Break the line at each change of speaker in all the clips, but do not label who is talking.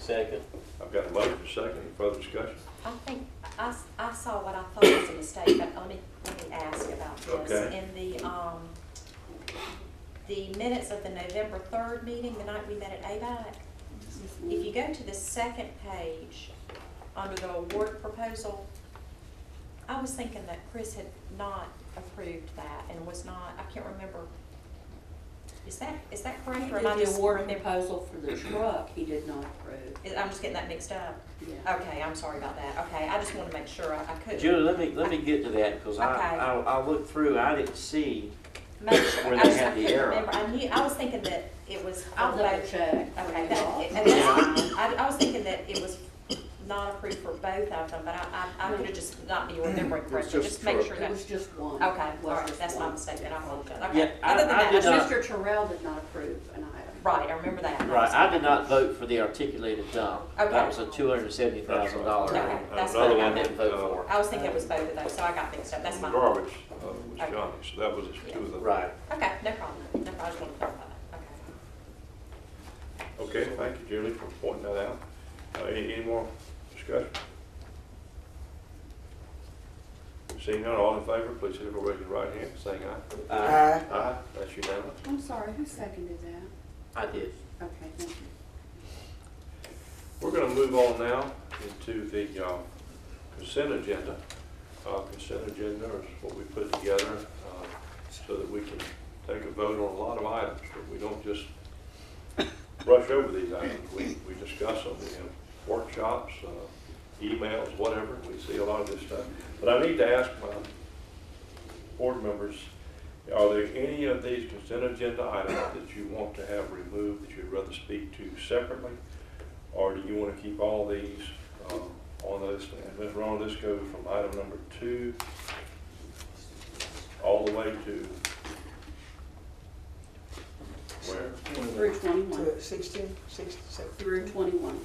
Second.
I've got a motion for second, Any further discussion?
I think, I, s- I saw what I thought was a mistake, but let me, let me ask about this.
Okay.
In the, um, the minutes of the November third meeting, the night we met at ABAC, if you go to the second page, under the award proposal, I was thinking that Chris had not approved that and was not, I can't remember. Is that, is that correct? or am I
The
just-
award proposal for the truck, he did not approve.
I'm just getting that mixed up.
Yeah.
Okay, I'm sorry about that. Okay, I just wanted to make sure I I could.
Julie, let me, let me get to that, because I,
Okay.
I, I looked through, I didn't see,
Make sure-
Where
I
they
just- I
had the
couldn't
error.
remember. I knew, I was thinking that it was.
I'll
for both-
double check.
Okay, that, and that's, I, I was thinking that it was not approved for both of them, but I, I, I could have just not be
Mm-hmm.
remembering correctly,
just
just make sure
It
that,
was just one.
okay,
It
all
was
right,
just
that's my
one.
mistake, then I apologize,
Yeah,
okay.
I-
Other than
I
that,
did not-
just-
Mr. Terrell did not approve an item.
Right, I remember that. I'm
right, I
sorry.
did not vote for the articulated dump. That
Okay.
was a two hundred and seventy thousand
That's
dollar.
right.
Okay, that's
Uh, Another
what I
one
didn't
that,
vote
uh,
for.
I was thinking it was both of those, so I got mixed up, that's my, okay,
Garbage, uh, was
Okay.
Johnny, so that was his two of them.
Right.
no problem, no problem, I just wanted to clarify that, okay.
Okay, thank you, Julie, for pointing that out. Uh, any, any more discussion? Seeing none, all in favor, please signify by raising your right hand, saying aye.
I,
Aye. That's unanimous.
I'm sorry, who seconded that?
I did.
Okay, thank you.
We're gonna move on now into the, uh, consent agenda. Uh, consent agenda is what we put together, uh, so that we can take a vote on a lot of items, but we don't just rush over these items. We, we discuss them, we have workshops, uh, emails, whatever, we see a lot of this stuff. But I need to ask my board members, are there any of these consent agenda items that you want to have removed, that you'd rather speak to separately? Or do you want to keep all these um, on this? And Ms. Ronald, this goes from item number two all the way to where?
Through twenty-one,
To Sixteen, sixteen, seventeen.
through twenty-one,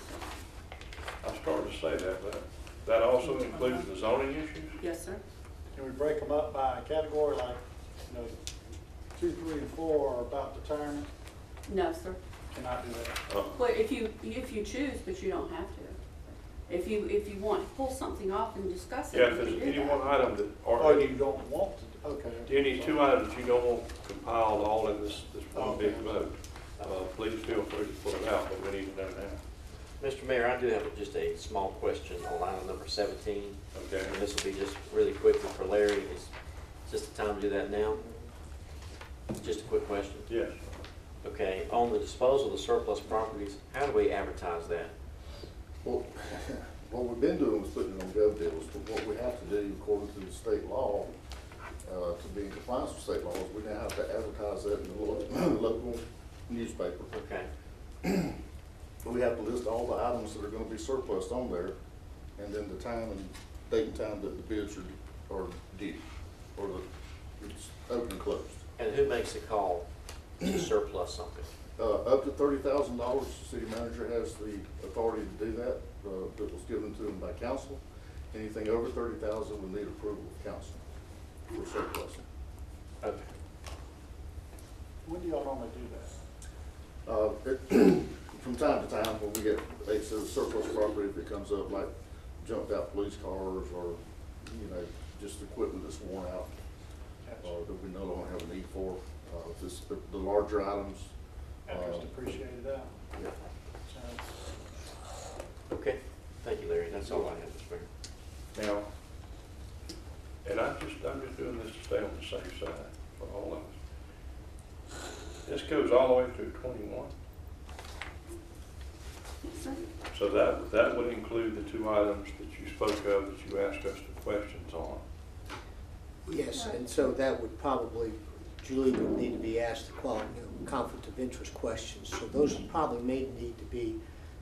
I started to say that, but that also includes the zoning issues?
yes, sir.
Can we break them up by category, like, you know, two, three, and four are about retirement?
No, sir.
Cannot do that.
Uh,
Well, if you, if you choose, but you don't have to. If you, if you want, to pull something off and discuss it.
Yeah, if
you
there's
can do
any
that.
one item that,
Oh,
or
you
any,
don't want to, okay.
any two items you don't want compiled all in this, this one big
Okay.
vote, uh, please feel free to pull it out, but we need to know now.
Mr. Mayor, I do have just a small question on item number seventeen,
Okay?
and this will be just really quickly for Larry, is just the time to do that now? Just a quick question.
Yes.
Okay, on the disposal of surplus properties, how do we advertise that?
Well, what we've been doing was putting it on gov deals, but what we have to do according to the state law, uh, to be in compliance with state laws, we now have to advertise that in the lo- local newspaper.
Okay,
But we have to list all the items that are gonna be surplus on there, and then the time and date and time that the bids are, are due, or the, it's open and closed.
and who makes the call to surplus something?
Uh, up to thirty thousand dollars, the city manager has the authority to do that, uh, that was given to him by council. Anything over thirty thousand would need approval of council for surplus.
Okay.
When do y'all normally do that?
Uh, it, from time to time, when we get, they say surplus property that comes up, like jumped out police cars or, you know, just equipment that's worn out, or that we no longer have a need for, uh, this, the, the larger items.
After it's
uh,
depreciated out.
yeah.
So,
Okay, thank you, Larry, that's all I have, Mr. Mayor.
Now, and I'm just, I'm just doing this to stay on the safe side for all of us. This goes all the way through twenty-one,
Yes, sir.
so that, that would include the two items that you spoke of, that you asked us the questions on.
Yes, and so that would probably, Julie would need to be asked the qual, you know, conflict of interest questions. So those probably may need to be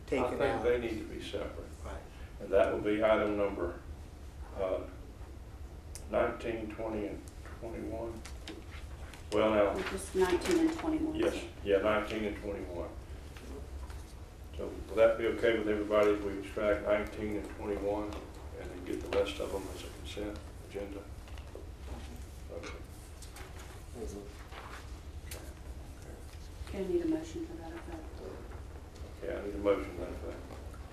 taken out.
I think they need to be separate,
Right.
and that would be item number, uh, nineteen, twenty, and twenty-one. Well, now,
We're Just nineteen and twenty-one.
Yes,
sir.
yeah, nineteen and twenty-one. So will that be okay with everybody if we extract nineteen and twenty-one and then get the rest of them as a consent agenda? Okay.
Okay, I need a motion for that, I
Okay, I need a motion to that effect.